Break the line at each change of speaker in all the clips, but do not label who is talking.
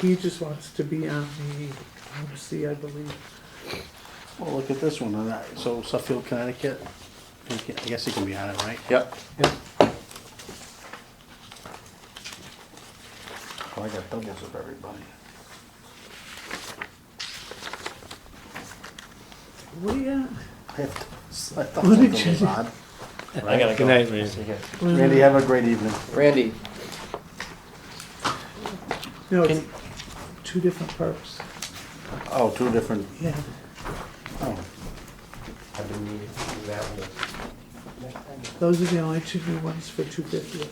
He just wants to be on the embassy, I believe.
Well, look at this one, and that- so Suffield, Connecticut, I think- I guess he can be on it, right?
Yep.
Yeah.
Well, Oh, I got doubles of everybody.
What do you got?
I have doubles. I thought
What did
something
you
was
do?
odd.
I gotta go. Good night, Randy.
Randy, have a great evening.
Randy,
No, it's two different perks.
Oh, two different,
Yeah.
oh,
I've been meaning to do that one.
Those are the only two new ones for two fifty.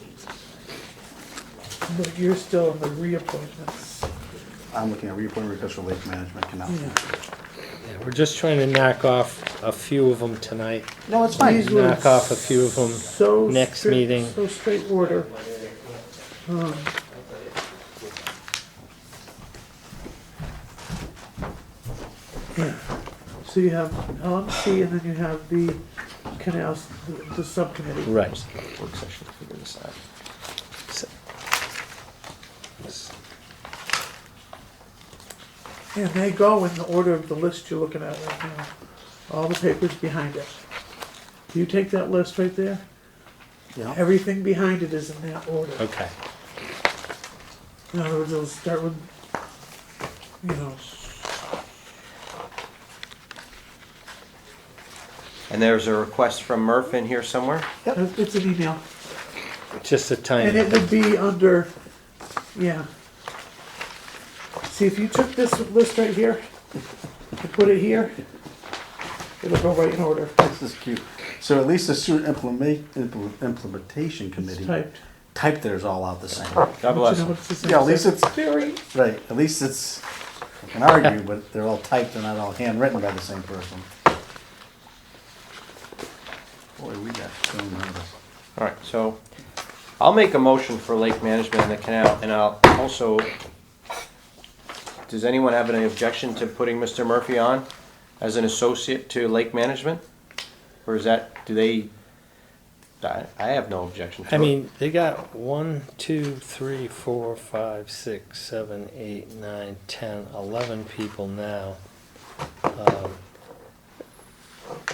But you're still on the reappointments.
I'm looking at reappointment request for lake management canal.
Yeah.
Yeah, We're just trying to knock off a few of them tonight.
No, it's fine.
These were
knock off a few of 'em
so
next
strict-
meeting.
So straight order. Um, yeah. So you have LMC and then you have the canals, the- the subcommittee.
Right.
work session, figure this out.
And they go in the order of the list you're looking at right now. All the papers behind it. You take that list right there,
Yeah,
everything behind it is in that order.
Okay.
In other words, it'll start with, you know,
And there's a request from Murph in here somewhere?
it's an email.
Just a
And
tiny
it would
bit.
be under, yeah. See, if you took this list right here and put it here, it'll go right in order.
this is cute. So at least the student implement, impl- implementation
It's
committee
typed.
typed theirs all out the same.
God bless
You know,
him.
it's the same
Yeah, at least
thing.
it's, right, at least it's, I can argue, but they're all typed and not all handwritten by the same person. Boy, we got so nervous.
All right, so I'll make a motion for lake management in the canal, and I'll also, does anyone have any objection to putting Mr. Murphy on as an associate to lake management? Or is that, do they, I, I have no objection to it.
I mean, they got one, two, three, four, five, six, seven, eight, nine, ten, eleven people now. Um,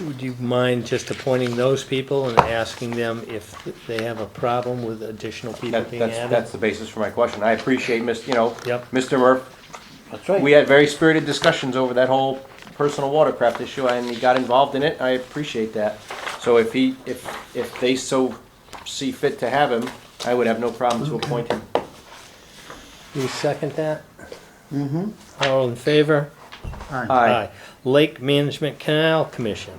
Would you mind just appointing those people and asking them if they have a problem with additional people
That,
being
that's, that's
added?
the basis for my question. I appreciate, Miss, you know,
Yep.
Mr. Murph,
That's right.
We had very spirited discussions over that whole personal watercraft issue, and he got involved in it. I appreciate that. So if he, if, if they so see fit to have him, I would have no problem to appoint him.
You second that? Mm-hmm. All in favor?
Aye.
Aye.
Lake Management Canal Commission.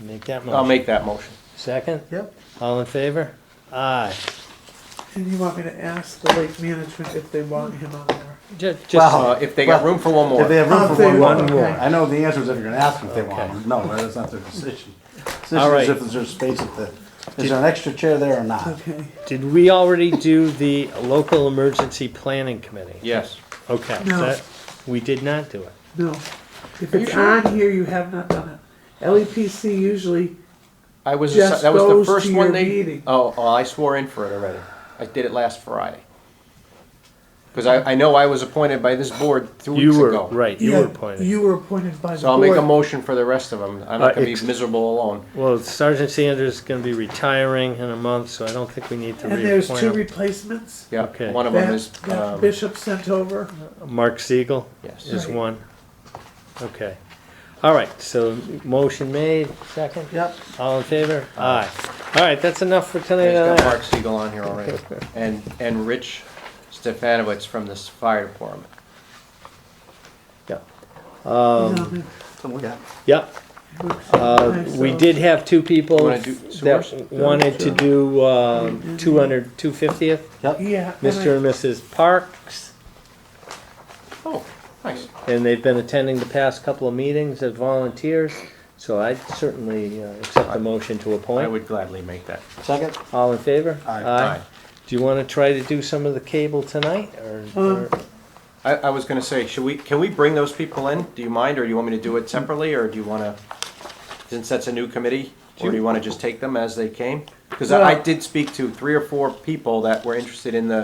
Make that motion.
I'll make that motion.
Second?
Yep.
All in favor? Aye.
And you want me to ask the lake management if they want him on there?
Ju- Just,
Wow.
Uh, if they got room for one
If they
more.
have room
Okay.
for one
One
more,
more.
I know the answer is if you're gonna ask them if they want
Okay.
them. No, that's not their decision. Decision
All
is
right.
if there's space at the, is there an extra chair there or not?
Okay.
did we already do the local emergency planning committee?
Yes.
Okay,
No.
that, we did not do it.
No. If it's on here, you have not done it. LEPC usually,
I was,
Just
that was the
goes to
first one
your
they,
meeting.
oh, oh, I swore in for it already. I did it last Friday. Because I, I know I was appointed by this board two weeks
You were,
ago.
right, you were
Yeah,
appointed.
You were appointed by the
So I'll make a
board.
motion for the rest of them. I'm
Uh,
not gonna be
ex-
miserable alone.
Well, Sergeant Sanders is gonna be retiring in a month, so I don't think we need to
And there's
reappoint
two
him.
replacements.
Yeah,
Okay.
one of them
That
is,
that
um,
Bishop sent over.
Mark Siegel?
Yes.
Is
Right.
one. Okay. All right, so motion made, second?
Yep.
All in favor? Aye. All right, that's enough for tonight.
He's
on
got
that.
Mark Siegel on here already, and, and Rich Stefanowitz from this fire department.
He's on there.
So we got-
Yep, um, uh,
Okay,
we
so-
did have two people
You wanna do sewers?
that wanted to do, um, two hundred, two fiftieth,
Yep,
Yeah. and I-
Mr. and Mrs. Parks.
Oh, nice.
And they've been attending the past couple of meetings as volunteers, so I'd certainly uh, accept the motion to
I
appoint.
would gladly make that.
second,
All in favor?
Aye.
Aye.
Do you wanna try to do some of the cable tonight, or- or?
Um,
I, I was gonna say, should we, can we bring those people in? Do you mind, or do you want me to do it separately, or do you wanna, since that's a new committee, or do you wanna just take them as they came? Because I I
Well-
did speak to three or four people that were interested in the